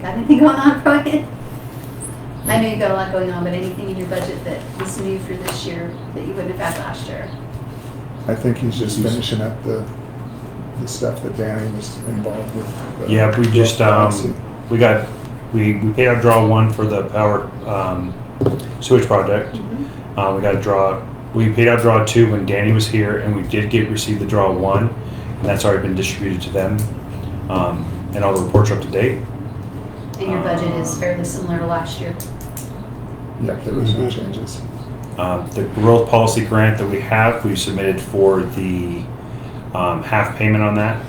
Got anything going on, Brian? I know you got a lot going on, but anything in your budget that is new for this year that you wouldn't have had last year? I think he's just finishing up the, the stuff that Danny was involved with. Yeah, we just, um, we got, we, we paid our draw one for the power, um, sewage project. Mm-hmm. Uh, we got a draw, we paid out draw two when Danny was here and we did get, receive the draw one. And that's already been distributed to them. Um, and all the reports are up to date. And your budget is fairly similar to last year? Yep, there was Mhm. no changes. Um, the growth policy grant that we have, we submitted for the um, half payment on that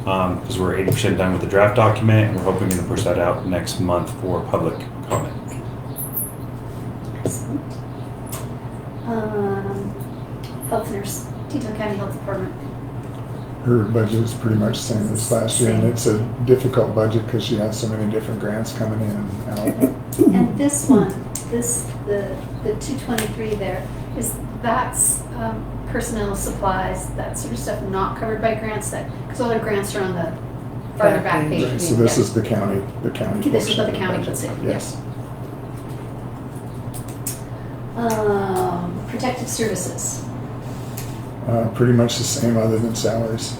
because we're 80% done with the draft document and we're hoping to push that out next month for public comment. Excellent. Um, Health nurse, Teton County Health Department. Her budget is pretty much the same as last year, and Same. it's a difficult budget because she has so many different grants coming in and out. And this one, this, the, the two twenty-three there, is, that's, um, personnel supplies, that sort of stuff not covered by grants that, because all their grants are on the farther back Back page. page. Right, So this Yeah. is the county, the county. This is portion what of the county puts in, budget. yeah. Yes. Um, protective services. Uh, pretty much the same, other than salaries.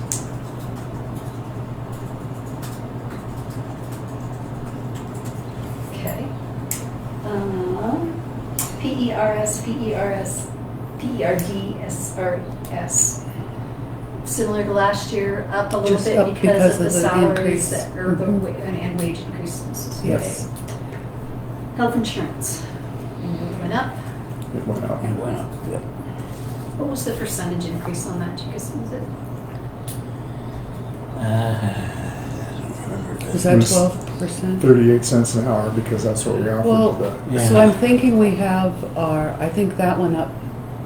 Okay. Um, P E R S, P E R S, P E R D S R S. Similar to last year, up a little Just up bit because of the salaries increase. that, or the, Mm-hmm. Mhm. wa- and and wage increases. Yes. Okay. Health insurance. Went up. It went up. And went up, yep. What was the percentage increase on that? Do you guys, was it Uh, I don't remember. Is It that was twelve percent? Thirty-eight cents an hour because that's what we Well, offered. the- Yeah. So I'm thinking we have our, I think that went up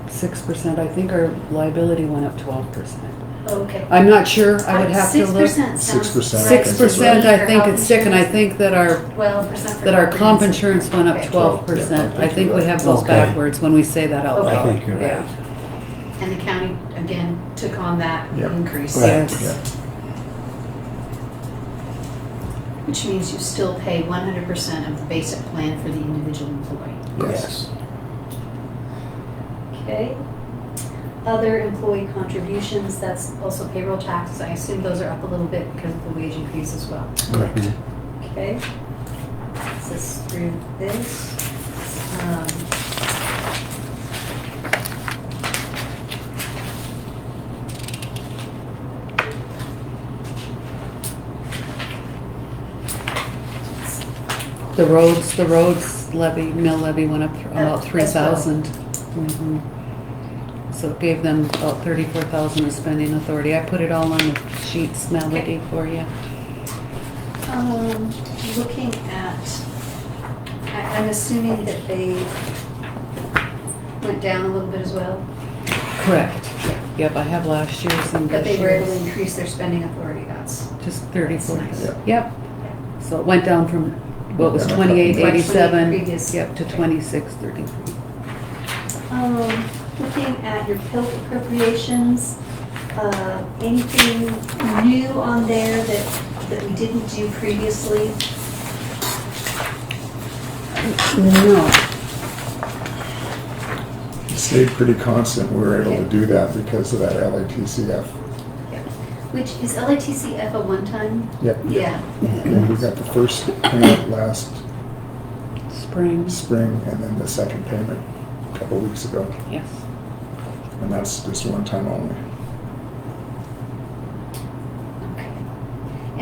six percent, I think our liability went up twelve percent. Okay. I'm not sure, I would have to look. Six percent sounds. 6%, I think Six it's percent, right. I think it's sick, and I think that our, Twelve percent for. that our comp comprehensive. insurance went up Okay. twelve percent. I think we have those Okay. backwards when we say that out Okay. I loud. think you're Yeah. right. And the county, again, took on that Yep. increase. Right. Yeah. Yes, Which means you still pay one hundred percent of the basic plan for the individual employee. Yes. Okay. Other employee contributions, that's also payroll taxes. I assume those are up a little bit because of the wage increase as well. Correct. Okay. This is through this. Um, the roads, the roads levy, mill levy went up about Up three as well. thousand. Mm-hmm. So it gave them about thirty-four thousand of spending authority. I put it all on the sheets, Melody, for you. Um, looking at, I, I'm assuming that they went down a little bit as well, Correct. Yep, I have last year's and but they this were able to year's. increase their spending authority, that's. Just thirty-four. That's nice. Yep. So it went down from what was Yeah. twenty-eight eighty-seven, 28 previous. yep, to Okay. twenty-six thirty-three. Um, looking at your PILT appropriations, uh, anything new on there that, that we didn't do previously? No, It Stayed pretty constant. We were able to do that because of that LATCF. Which, is LATCF a one-time? Yep. Yeah. And we got the first payment last spring, spring and then the second payment a couple weeks ago. yes. And that's just one time only. Okay.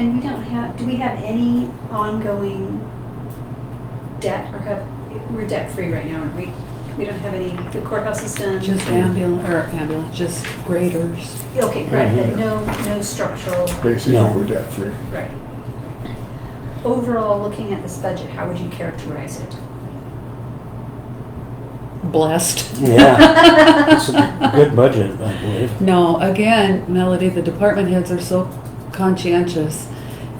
And we don't have, do we have any ongoing debt or have, we're debt-free right now, aren't we? We don't have any, the courthouse is done. Just ambulance, or ambulance, just graders. Okay, right, but no, no structural, Basically, No. we're debt free. right. Overall, looking at this budget, how would you characterize it? Blessed. Yeah, it's a good budget, I believe. No, again, Melody, the department heads are so conscientious.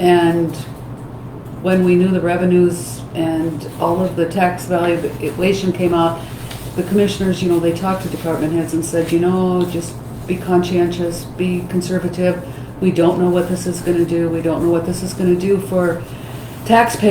And when we knew the revenues and all of the tax valuation came out, the commissioners, you know, they talked to department heads and said, you know, just be conscientious, be conservative. We don't know what this is gonna do. We don't know what this is gonna do for taxpayers.